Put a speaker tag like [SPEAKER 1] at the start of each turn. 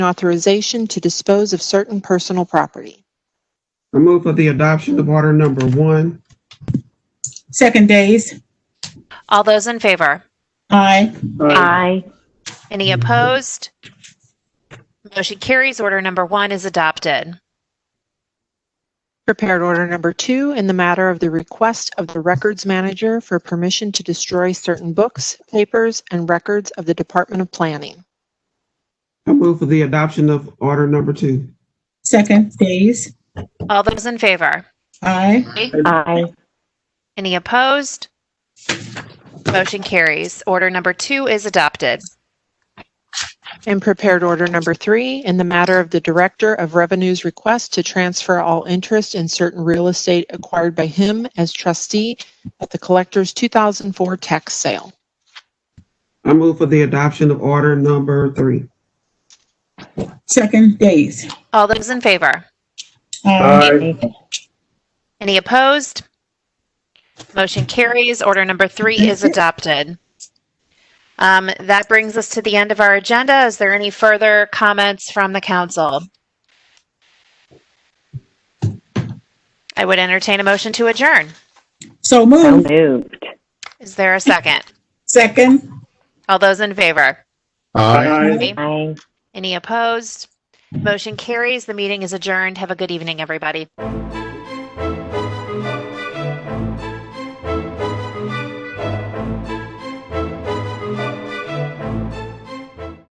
[SPEAKER 1] authorization to dispose of certain personal property.
[SPEAKER 2] I move for the adoption of order number one.
[SPEAKER 3] Second days.
[SPEAKER 4] All those in favor?
[SPEAKER 3] Aye.
[SPEAKER 5] Aye.
[SPEAKER 4] Any opposed? Motion carries. Order number one is adopted.
[SPEAKER 1] Prepared order number two in the matter of the request of the records manager for permission to destroy certain books, papers, and records of the Department of Planning.
[SPEAKER 2] I move for the adoption of order number two.
[SPEAKER 3] Second days.
[SPEAKER 4] All those in favor?
[SPEAKER 3] Aye.
[SPEAKER 5] Aye.
[SPEAKER 4] Any opposed? Motion carries. Order number two is adopted.
[SPEAKER 1] And prepared order number three in the matter of the Director of Revenue's request to transfer all interest in certain real estate acquired by him as trustee at the collector's 2004 tax sale.
[SPEAKER 2] I move for the adoption of order number three.
[SPEAKER 3] Second days.
[SPEAKER 4] All those in favor?
[SPEAKER 3] Aye.
[SPEAKER 4] Any opposed? Motion carries. Order number three is adopted. Um, That brings us to the end of our agenda. Is there any further comments from the council? I would entertain a motion to adjourn.
[SPEAKER 3] So
[SPEAKER 5] So
[SPEAKER 3] moved.
[SPEAKER 5] moved.
[SPEAKER 4] Is there a second?
[SPEAKER 3] Second.
[SPEAKER 4] All those in favor?
[SPEAKER 6] Aye.
[SPEAKER 5] Aye.
[SPEAKER 4] Any opposed? Motion carries. The meeting is adjourned. Have a good evening, everybody.